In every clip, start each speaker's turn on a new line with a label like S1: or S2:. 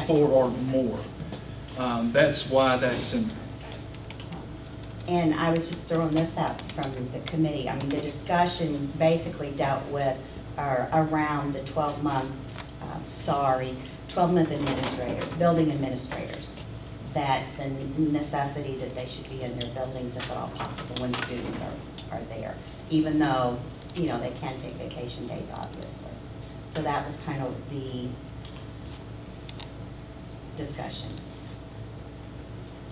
S1: four or more. Um, That's why that's in,
S2: And I was just throwing this out from the committee. I mean, the discussion basically dealt with, or around the 12-month, uh, sorry, 12-month administrators, building administrators, that the necessity that they should be in their buildings if at all possible when students are, are there, even though, you know, they can take vacation days, obviously. So that was kind of the discussion.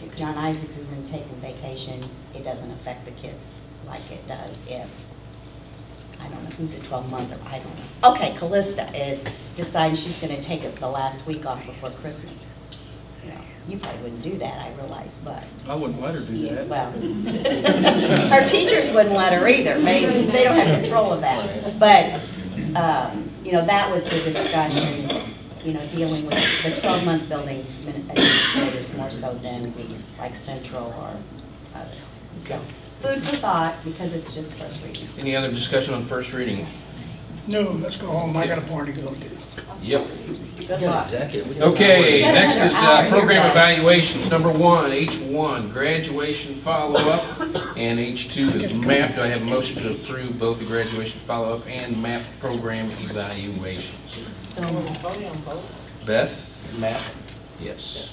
S2: If John Isaacs isn't taking vacation, it doesn't affect the kids like it does if, I don't know, who's a 12-month or I don't know. Okay, Callista is deciding she's going to take it the last week off before Christmas. You know, You probably wouldn't do that, I realize, but,
S1: I wouldn't let her do
S2: yeah,
S1: that.
S2: well. Her teachers wouldn't let her either, maybe, they don't have control of that. But, um, you know, that was the discussion, you know, dealing with the 12-month building admin- administrators more so than like Central or others. So food for thought, because it's just first reading.
S3: Any other discussion on first reading?
S4: No, let's go home, I got a party to go to.
S3: Yep.
S2: Good luck.
S3: Okay,
S2: Yeah,
S3: next
S2: another
S3: is
S2: hour,
S3: uh,
S2: you're
S3: program
S2: right.
S3: evaluations. Number one, H1, graduation follow-up, and H2 is MAP. Do I have a motion to approve both the graduation follow-up and MAP program evaluations?
S2: So,
S3: Beth?
S5: Matt,
S3: Yes.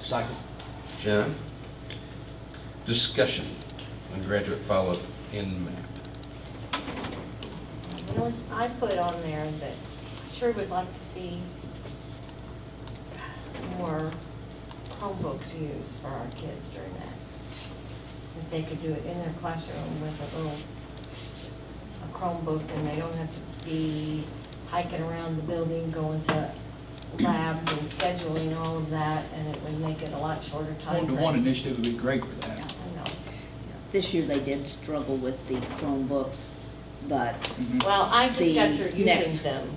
S5: second.
S3: John? Discussion on graduate follow-up and MAP.
S6: The only- I put on there that I sure would like to see more Chromebooks used for our kids during that. If they could do it in their classroom with a little, a Chromebook, and they don't have to be hiking around the building, going to labs and scheduling all of that, and it would make it a lot shorter time.
S1: One-to-one
S6: frame.
S1: initiative would be great for
S6: I
S1: that.
S6: know.
S7: This year they did struggle with the Chromebooks, but
S1: Mm-hmm.
S6: Well, I just got
S7: The
S6: through using
S7: next-
S6: them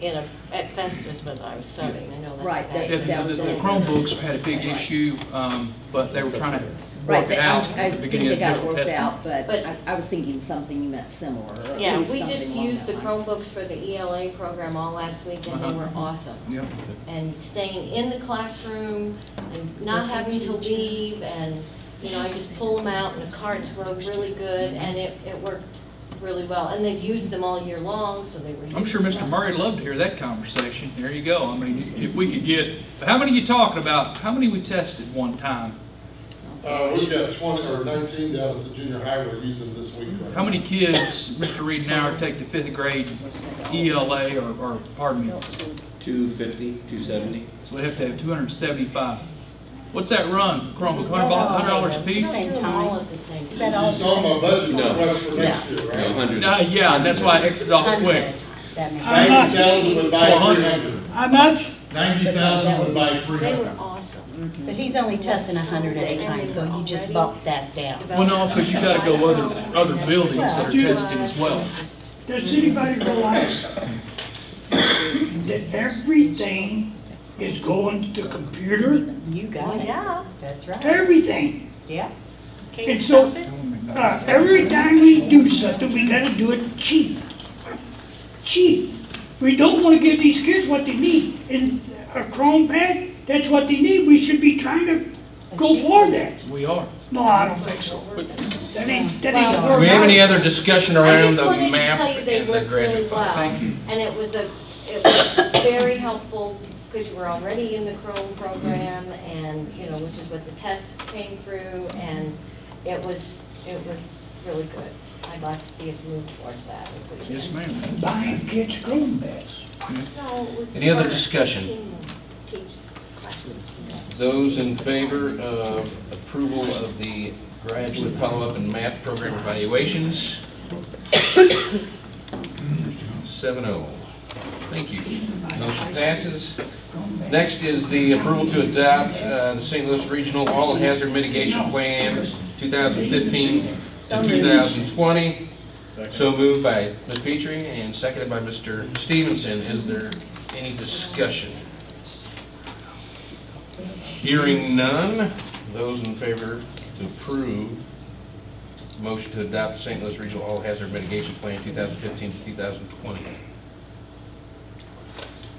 S6: in a, at Festus, but I was subbing, I know that's.
S7: Right,
S6: bad.
S1: The
S7: that- that
S1: the-
S7: was
S1: the
S7: it.
S1: Chromebooks had a big issue, um, but they were trying to
S7: right,
S1: work
S7: they-
S1: it
S7: I
S1: out at
S7: I
S1: the
S7: think
S1: beginning
S7: they
S1: of
S7: got
S1: digital
S7: worked out,
S1: testing.
S7: but
S6: But-
S7: I I was thinking something you meant similar. or at
S6: Yeah,
S7: least
S6: we
S7: something
S6: just
S7: along
S6: used the
S7: that line.
S6: Chromebooks for the ELA program all last week, and they
S1: Uh-huh.
S6: were awesome.
S1: Yeah.
S6: And staying in the classroom and not having to leave, and, you know, I just pull them out, and the carts worked really good, and it, it worked really well. And they've used them all year long, so they were.
S1: I'm sure
S6: used
S1: Mr.
S6: well.
S1: Murray'd love to hear that conversation. There you go. I mean, if we could get, how many you talking about? How many we tested one time?
S8: Uh, we've got twenty or nineteen down at the junior high we're using this week. right
S1: How many
S8: now.
S1: kids, Mr. Reed and I, are taking the fifth grade ELA or, or, pardon me,
S5: 250, 270?
S1: so we have to have two hundred and seventy-five. What's that run, Chromebook, hundred dollars a piece?
S6: We don't do them all at the same
S2: Is that
S6: time.
S2: all
S8: You
S2: the
S8: saw my
S2: same?
S8: budget
S5: No.
S8: request for next year,
S5: No,
S8: right?
S5: 100.
S1: Uh, yeah, and that's why I exited off quick.
S2: That makes
S4: I'm not-
S2: sense.
S8: Ninety thousand would
S1: So
S8: buy three
S1: 100.
S8: hundred.
S4: How much?
S8: Ninety thousand would buy three
S6: They were
S1: Mm-hmm.
S8: hundred.
S7: Mm-hmm.
S6: awesome.
S2: But he's only testing 100 at a time, so you just bumped that down.
S1: Well, no, 'cause you gotta go other- other buildings
S2: that are
S1: testing as well.
S4: Does anybody realize that everything is going to the computer?
S2: You got
S6: Well,
S2: it.
S6: yeah.
S2: That's right.
S4: Everything.
S2: Yeah.
S6: Can you
S4: And so-
S6: stop it?
S4: Uh, every time we do something, we gotta do it cheap. Cheap. We don't wanna give these kids what they need. And a Chrome pad, that's what they need. We should be trying to go for that.
S1: We are.
S4: No, I don't think so. That ain't, that ain't.
S6: Well-
S3: Do
S4: worth
S3: we have any
S4: it.
S3: other discussion
S6: I
S3: around
S6: just
S3: the
S6: wanted to
S3: MAP
S6: tell you they
S3: and the
S6: worked really
S3: graduate follow-up?
S6: well. And it was a, it was very helpful because you were already in the Chrome program and, you know, which is what the tests came through and it was, it was really good. I'd like to see us move towards that if we can.
S1: Yes, ma'am.
S4: Buying kids Chrome pads.
S6: No, it was.
S3: Any other
S6: for
S3: discussion?
S6: team- teach classrooms.
S3: Those in favor of approval of the graduate follow-up and math program evaluations? Seven oh. Thank you. Motion passes. Next is the approval to adopt uh, the St. Louis Regional All Hazard Mitigation Plan 2015 to 2020. So moved by Ms. Petrie and seconded by Mr. Stevenson. Is there any discussion? Hearing none, those in favor to approve motion to adopt St. Louis Regional All Hazard Mitigation Plan 2015 to 2020.